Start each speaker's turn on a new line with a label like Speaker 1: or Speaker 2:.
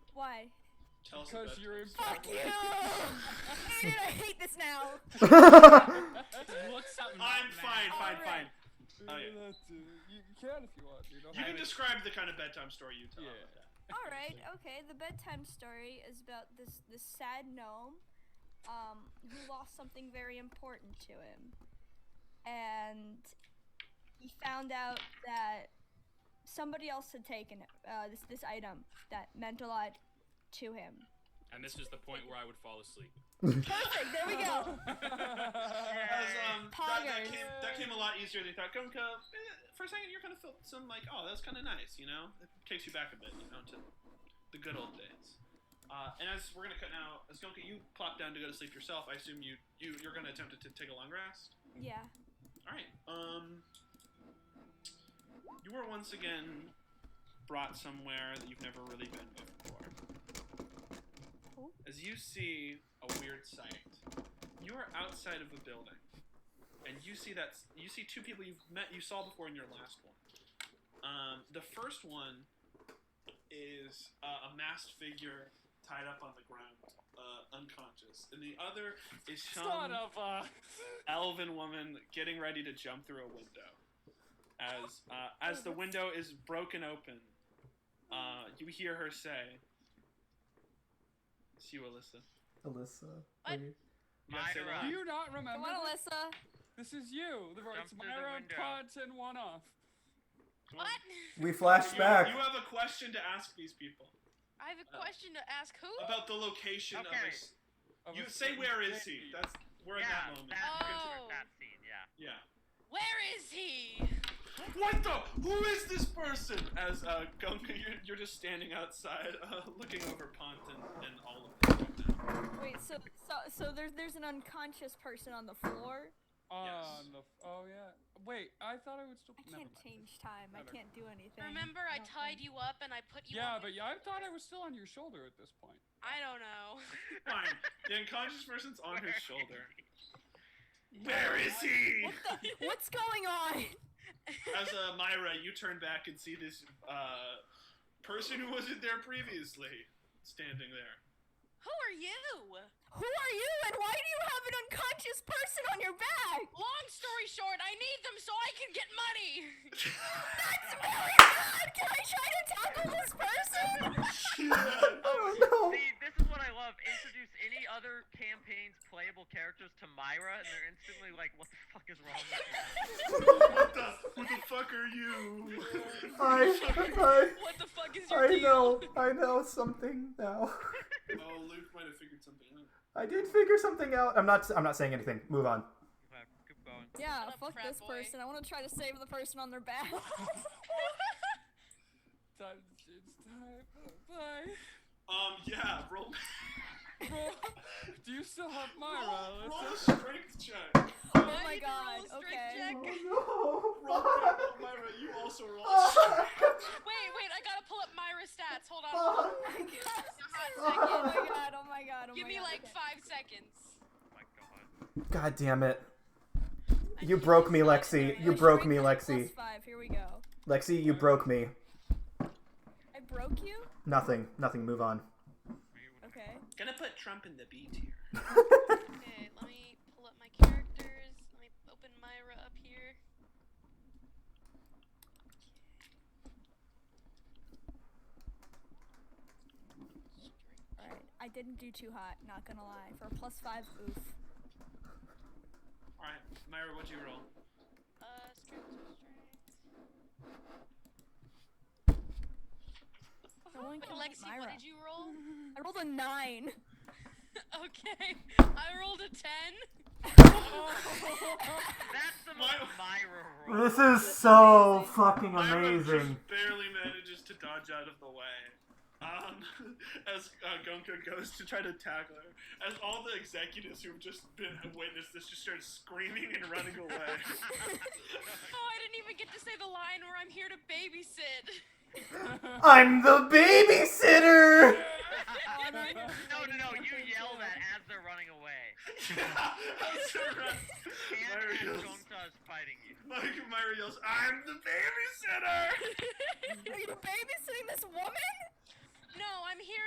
Speaker 1: Why?
Speaker 2: Tell us
Speaker 3: Because
Speaker 2: about
Speaker 3: you're
Speaker 2: this.
Speaker 1: Fuck you! I'm gonna hate this now.
Speaker 4: Looks up.
Speaker 2: I'm fine, fine,
Speaker 1: Alright.
Speaker 2: fine. Oh, yeah.
Speaker 3: You can if you want, dude. I'll
Speaker 2: You
Speaker 3: have
Speaker 2: can
Speaker 3: it.
Speaker 2: describe the kind of bedtime story you tell.
Speaker 3: Yeah.
Speaker 1: All right, okay. The bedtime story is about this this sad gnome, um, who lost something very important to him, and he found out that somebody else had taken it, uh, this this item that meant a lot to him.
Speaker 4: And this is the point where I would fall asleep.
Speaker 1: Perfect. There we go.
Speaker 2: As, um, that, that,
Speaker 1: Poggers.
Speaker 2: came, that came a lot easier than you thought. Gunka, eh, for a second, you're kind of felt some like, oh, that was kind of nice, you know? It takes you back a bit, you know, to the good old days. Uh, and as we're gonna cut now, as Gunka, you plop down to go to sleep yourself. I assume you, you you're gonna attempt to t- take a long rest.
Speaker 1: Yeah.
Speaker 2: All right. Um, you were once again brought somewhere that you've never really been before.
Speaker 1: Cool.
Speaker 2: As you see a weird sight, you are outside of a building, and you see that you see two people you've met you saw before in your last one. Um, the first one is uh, a masked figure tied up on the ground, uh, unconscious, and the other is some
Speaker 3: Son of a.
Speaker 2: elven woman getting ready to jump through a window. As uh, as the window is broken open, uh, you hear her say, "It's you, Alyssa."
Speaker 5: Alyssa.
Speaker 6: What?
Speaker 5: wait.
Speaker 2: You gotta say
Speaker 6: Myra.
Speaker 2: that.
Speaker 3: Do you not
Speaker 1: Come
Speaker 3: remember?
Speaker 1: on, Alyssa.
Speaker 3: This is you. The
Speaker 6: Jump
Speaker 3: it's
Speaker 6: through the
Speaker 3: Myra
Speaker 6: window.
Speaker 3: Ponton one off.
Speaker 2: Come on.
Speaker 6: What?
Speaker 5: We
Speaker 2: You,
Speaker 5: flash back.
Speaker 2: you have a question to ask these people
Speaker 6: I have a
Speaker 2: Uh,
Speaker 6: question to ask who?
Speaker 2: about the location of
Speaker 7: Okay.
Speaker 2: us. You say, "Where is he?" That's we're in that
Speaker 7: yeah, Uh,
Speaker 2: moment.
Speaker 7: that,
Speaker 6: Oh.
Speaker 7: that scene, yeah.
Speaker 2: Yeah.
Speaker 6: Where is he?
Speaker 2: What the? Who is this person? As uh, Gunga, you're, you're just standing outside, uh, looking over Pont and, and all of them.
Speaker 1: Wait. So so so there's there's an unconscious person on the floor.
Speaker 3: On
Speaker 2: Yes.
Speaker 3: the f- oh yeah. Wait, I thought I would still.
Speaker 1: I
Speaker 3: never
Speaker 1: can't
Speaker 3: mind.
Speaker 1: change time. I
Speaker 3: Never.
Speaker 1: can't do anything.
Speaker 6: Remember, I tied you up and I put you.
Speaker 3: Yeah,
Speaker 6: on
Speaker 3: but
Speaker 6: the-
Speaker 3: yeah, I thought I was still on your shoulder at this point.
Speaker 6: I don't know.
Speaker 2: Fine. The unconscious person's on his shoulder. Where is he?
Speaker 1: What the? What's going on?
Speaker 2: As uh, Myra, you turn back and see this uh, person who wasn't there previously standing there.
Speaker 6: Who are you?
Speaker 1: Who are you and why do you have an unconscious person on your back?
Speaker 6: Long story short, I need them so I can get money.
Speaker 1: That's really bad! Can I try to tackle this person?
Speaker 5: oh
Speaker 7: See, this is what I love. Introduce any other campaign's playable characters to Myra, and they're instantly like, "What the fuck is wrong with you?"
Speaker 2: what the? Who the fuck are you?
Speaker 5: no! I,
Speaker 6: What the fuck is
Speaker 5: I,
Speaker 6: your
Speaker 5: I
Speaker 6: deal?
Speaker 5: know, I know something now.
Speaker 2: oh, Luke might have figured something out.
Speaker 5: I did figure something out. I'm not. I'm not saying anything. Move on.
Speaker 7: Whatever, Keep going.
Speaker 1: Yeah,
Speaker 6: Shut up,
Speaker 1: fuck
Speaker 6: frat
Speaker 1: this
Speaker 6: boy.
Speaker 1: person. I want to try to save the person on their back.
Speaker 3: Time, it's time. Bye.
Speaker 2: Um, yeah, roll,
Speaker 3: Roll- Do you still have Myra?
Speaker 2: roll,
Speaker 3: Let's
Speaker 2: roll a
Speaker 3: just-
Speaker 2: strength check.
Speaker 1: oh
Speaker 6: I
Speaker 1: my
Speaker 6: need to roll
Speaker 1: god,
Speaker 6: a strength
Speaker 1: okay.
Speaker 6: check.
Speaker 5: Oh no!
Speaker 2: Roll,
Speaker 5: Fuck!
Speaker 2: Myra, you also roll. a strength.
Speaker 5: Fuck!
Speaker 6: Wait, wait, I gotta pull up Myra's stats. Hold on.
Speaker 5: Fuck!
Speaker 1: oh my god, oh my god, oh
Speaker 6: Give
Speaker 1: my
Speaker 6: me
Speaker 1: god.
Speaker 6: like
Speaker 1: okay.
Speaker 6: five seconds.
Speaker 7: Oh my god.
Speaker 5: God damn it! You broke me, Lexi. You broke me,
Speaker 1: Strength check Plus
Speaker 5: Lexi.
Speaker 1: five, here we go.
Speaker 5: Lexi, you broke me.
Speaker 1: I broke you?
Speaker 5: Nothing. Nothing. Move on.
Speaker 1: Okay.
Speaker 2: Gonna put Trump in the B tier.
Speaker 6: Okay, let me pull up my characters. Let me open Myra up here.
Speaker 1: Alright, I didn't do too hot, not gonna lie. For a plus five, oof.
Speaker 2: All right, Myra, what'd you roll?
Speaker 6: Uh, strength, strength.
Speaker 1: No one
Speaker 6: Wait,
Speaker 1: can hit
Speaker 6: Lexi, what
Speaker 1: Myra.
Speaker 6: did you roll?
Speaker 1: I rolled a nine.
Speaker 6: okay, I rolled a ten.
Speaker 7: That's the
Speaker 2: My-
Speaker 7: most Myra roll.
Speaker 5: This is so fucking
Speaker 2: Myra just
Speaker 5: amazing.
Speaker 2: barely manages to dodge out of the way. Um, as uh, Gonka goes to try to tackle her, as all the executives who've just been have witnessed this just start screaming and running away.
Speaker 6: Oh, I didn't even get to say the line where I'm here to babysit.
Speaker 5: I'm the babysitter.
Speaker 7: No, no, no. You yell that as they're running away.
Speaker 2: As her-
Speaker 7: And
Speaker 2: Myra
Speaker 7: as
Speaker 2: yells,
Speaker 7: Gonta is fighting you.
Speaker 2: like, Myra yells, "I'm the
Speaker 1: Are
Speaker 2: babysitter!"
Speaker 1: you babysitting this woman?
Speaker 6: no, I'm here